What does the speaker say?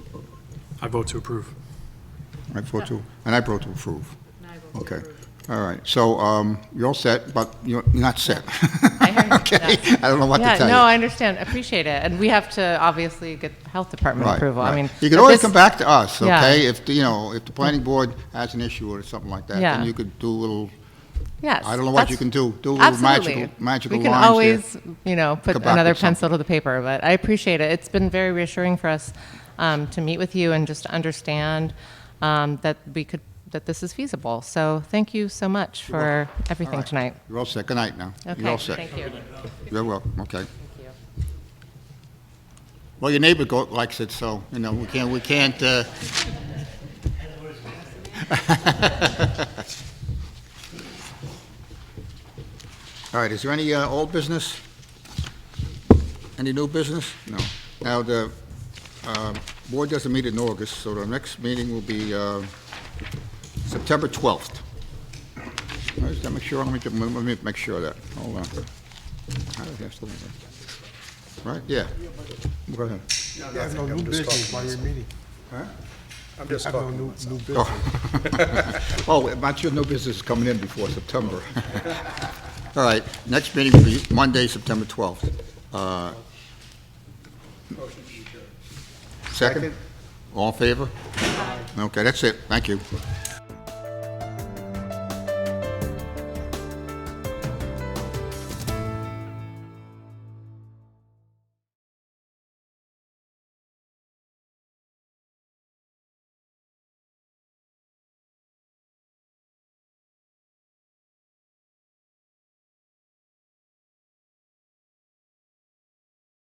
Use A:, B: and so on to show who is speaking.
A: I vote to approve.
B: I vote to, and I vote to approve.
C: I will
B: Okay,
C: approve.
B: all right, so um, you're all set, but you're you're not set.
C: I heard
B: Okay,
C: that.
B: I don't know what to
C: Yeah,
B: tell you.
C: no, I understand. Appreciate it. And we have to obviously get the health department
B: Right,
C: approval.
B: right.
C: I mean,
B: You can
C: but
B: always
C: this-
B: come back to us,
C: Yeah. Mm-hmm.
B: okay? If, the- you know, if the planning board has an issue or something like that,
C: Yeah.
B: then you could do a little,
C: Yes,
B: I don't know what you
C: that's-
B: can do. Do a little magical-
C: absolutely.
B: magical
C: We can
B: lines here.
C: always, you know, put
B: Come back
C: another
B: with something.
C: pencil to the paper. But I appreciate it. It's been very reassuring for us um, to meet with you and just to understand um, that we could that this is feasible. So thank you so much for everything
B: right.
C: tonight.
B: you're all set, good night now.
C: Okay,
B: You're all set.
C: thank you.
B: You're welcome, okay.
C: Thank you.
B: Well, your neighbor go- likes it, so, you know, we can't, we can't, uh... All right, is there any, uh, old business? Any new business? No. Now, the, uh, board doesn't meet in August, so the next meeting will be, uh, September twelfth. Let me make sure, let me, ju- let me make sure of that, hold on. I don't have to- Right, yeah. Go ahead.
D: You have no new business while you're meeting.
E: I'm just
D: Have no
E: talking to
D: new,
E: myself.
D: new business.
B: Oh, about your new business is coming in before September. All right, next meeting will be Monday, September 12th. Uh, Second? All in favor? Okay, that's it, thank you.